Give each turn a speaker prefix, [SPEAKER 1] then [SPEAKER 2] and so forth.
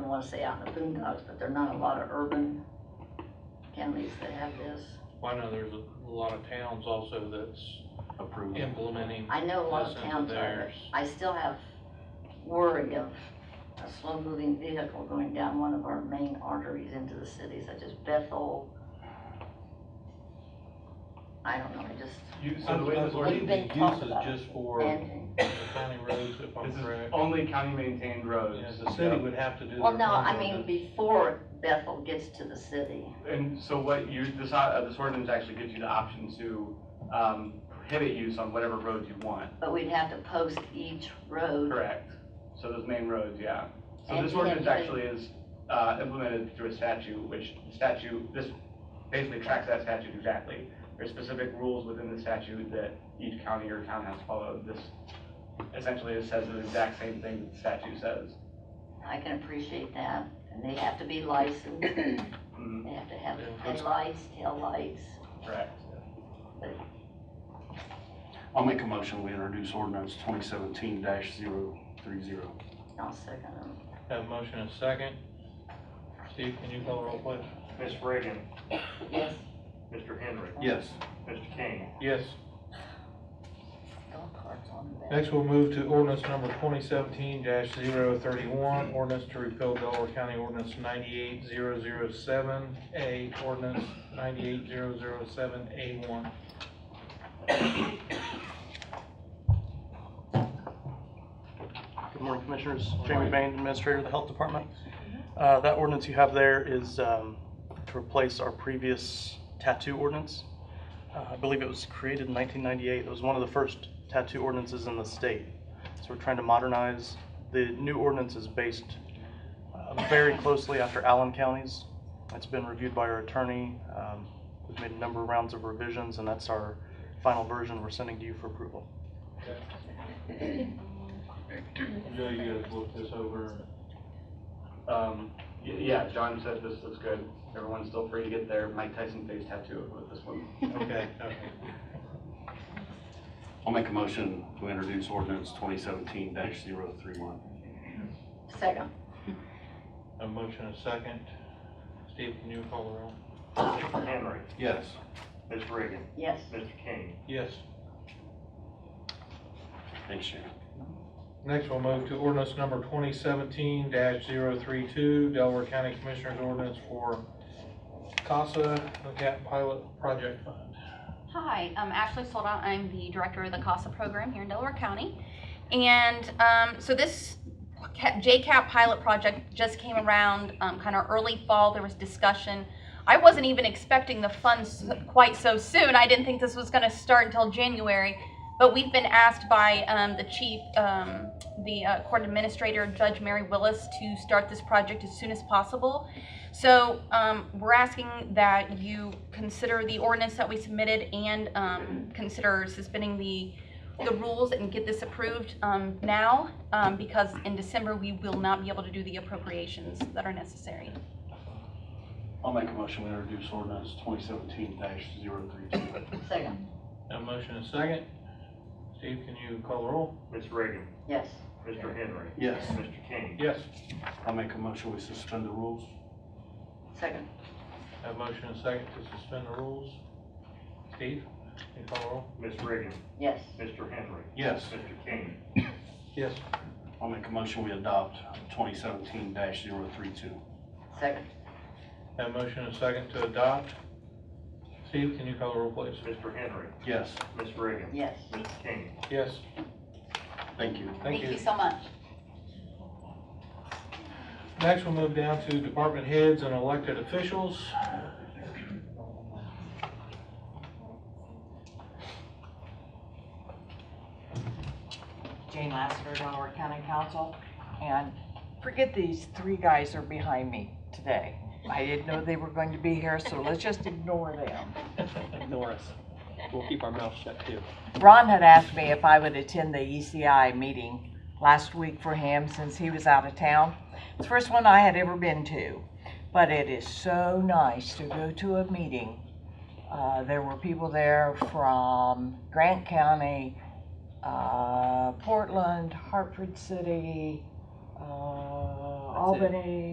[SPEAKER 1] wanna say out in the boondocks, but there are not a lot of urban counties that have this.
[SPEAKER 2] Well, I know there's a lot of towns also that's
[SPEAKER 3] Approval.
[SPEAKER 2] implementing
[SPEAKER 1] I know a lot
[SPEAKER 2] this
[SPEAKER 1] of
[SPEAKER 2] into
[SPEAKER 1] towns are,
[SPEAKER 2] theirs.
[SPEAKER 1] but I still have worry of a slow-moving vehicle going down one of our main arteries into the city, such as Bethel. I don't know, I just,
[SPEAKER 4] You,
[SPEAKER 2] I
[SPEAKER 4] so the way this works,
[SPEAKER 1] believe-
[SPEAKER 4] is
[SPEAKER 1] been
[SPEAKER 2] use
[SPEAKER 1] talked
[SPEAKER 2] is
[SPEAKER 1] about.
[SPEAKER 2] just for
[SPEAKER 1] and,
[SPEAKER 2] the county roads, if I'm
[SPEAKER 4] this is
[SPEAKER 2] correct.
[SPEAKER 4] only county maintained roads.
[SPEAKER 2] Yeah, the city would have to do their.
[SPEAKER 1] well, no, I
[SPEAKER 2] own
[SPEAKER 1] mean,
[SPEAKER 2] ordinance.
[SPEAKER 1] before Bethel gets to the city.
[SPEAKER 4] And so what you, this, uh, this ordinance actually gives you the option to, um, prohibit use on whatever roads you want,
[SPEAKER 1] But we'd have to post each road.
[SPEAKER 4] correct? So those main roads, yeah. So
[SPEAKER 1] And
[SPEAKER 4] this
[SPEAKER 1] you have
[SPEAKER 4] ordinance
[SPEAKER 1] to-
[SPEAKER 4] actually is, uh, implemented through a statute, which statute, this basically tracks that statute exactly. There's specific rules within the statute that each county or town has to follow. This essentially it says the exact same thing that the statute says.
[SPEAKER 1] I can appreciate that, and they have to be licensed, they
[SPEAKER 4] Mhm,
[SPEAKER 1] have to have
[SPEAKER 2] Yeah.
[SPEAKER 1] headlights, taillights.
[SPEAKER 4] Correct.
[SPEAKER 3] I'll make a motion, we introduce ordinance twenty seventeen 30
[SPEAKER 1] I'll second um, them.
[SPEAKER 2] Have a motion and a second. Steve, can you call the roll, please?
[SPEAKER 5] Ms. Reagan,
[SPEAKER 1] Yes.
[SPEAKER 5] Mr. Henry,
[SPEAKER 3] Yes.
[SPEAKER 5] Mr. King,
[SPEAKER 2] Yes.
[SPEAKER 1] Golf carts on the back.
[SPEAKER 2] Next, we'll move to ordinance number twenty seventeen 31 ordinance to repeal Delaware County Ordinance ninety-eight zero zero seven A, ordinance ninety-eight zero zero seven A one.
[SPEAKER 6] Good morning, Commissioners. Jamie Bain, Administrator of the Health Department. Uh, That ordinance you have there is um, to replace our previous tattoo ordinance. Uh, I believe it was created in 1998. It was one of the first tattoo ordinances in the state. So we're trying to modernize. The new ordinance is based uh, very closely after Allen County's. It's been reviewed by our attorney. Um, We've made a number of rounds of revisions, and that's our final version we're sending to you for approval.
[SPEAKER 2] Joe, you guys look this over.
[SPEAKER 4] Um, y- yeah, John said this looks good. Everyone's still free to get their Mike Tyson face tattoo with this one.
[SPEAKER 2] Okay, okay.
[SPEAKER 3] I'll make a motion, we introduce ordinance twenty seventeen 31
[SPEAKER 1] Second.
[SPEAKER 2] A motion and a second. Steve, can you call the roll?
[SPEAKER 5] Mr. Henry,
[SPEAKER 3] Yes.
[SPEAKER 5] Ms. Reagan,
[SPEAKER 1] Yes.
[SPEAKER 5] Mr. King,
[SPEAKER 2] Yes.
[SPEAKER 3] Thanks, Sharon.
[SPEAKER 2] Next, we'll move to ordinance number twenty seventeen 32 Delaware County Commissioners Ordinance for CASA, the CAP Pilot Project Fund.
[SPEAKER 7] Hi, I'm Ashley Solda. I'm the director of the CASA program here in Delaware County. And um, so this ca- JCAP pilot project just came around um, kind of early fall. There was discussion. I wasn't even expecting the funds quite so soon. I didn't think this was going to start until January. But we've been asked by um, the chief, um, the uh, court administrator, Judge Mary Willis, to start this project as soon as possible. So um, we're asking that you consider the ordinance that we submitted and um, consider suspending the, the rules and get this approved um, now, um, because in December, we will not be able to do the appropriations that are necessary.
[SPEAKER 3] I'll make a motion, we introduce ordinance twenty seventeen 32
[SPEAKER 1] Second.
[SPEAKER 2] A motion and a second. Steve, can you call the roll?
[SPEAKER 5] Ms. Reagan,
[SPEAKER 1] Yes.
[SPEAKER 5] Mr. Henry,
[SPEAKER 3] Yes.
[SPEAKER 5] Mr. King,
[SPEAKER 2] Yes.
[SPEAKER 3] I'll make a motion, we suspend the rules.
[SPEAKER 1] Second.
[SPEAKER 2] A motion and a second to suspend the rules. Steve, can you call the roll?
[SPEAKER 5] Ms. Reagan,
[SPEAKER 1] Yes.
[SPEAKER 5] Mr. Henry,
[SPEAKER 3] Yes.
[SPEAKER 5] Mr. King,
[SPEAKER 2] Yes.
[SPEAKER 3] I'll make a motion, we adopt twenty seventeen 32
[SPEAKER 1] Second.
[SPEAKER 2] A motion and a second to adopt. Steve, can you call the roll, please?
[SPEAKER 5] Mr. Henry,
[SPEAKER 3] Yes,
[SPEAKER 5] Ms. Reagan,
[SPEAKER 1] Yes.
[SPEAKER 5] Mr. King,
[SPEAKER 2] Yes.
[SPEAKER 3] thank you.
[SPEAKER 2] Thank you.
[SPEAKER 1] so much.
[SPEAKER 2] Next, we'll move down to department heads and elected officials.
[SPEAKER 8] Jane Lassiter, Delaware County Council, and forget these three guys are behind me today. I didn't know they were going to be here, so let's just ignore them.
[SPEAKER 9] ignore us. We'll keep our mouth shut too.
[SPEAKER 8] Ron had asked me if I would attend the ECI meeting last week for him since he was out of town. It's the first one I had ever been to, but it is so nice to go to a meeting. Uh, there were people there from Grant County, uh, Portland, Hartford City, uh, Albany.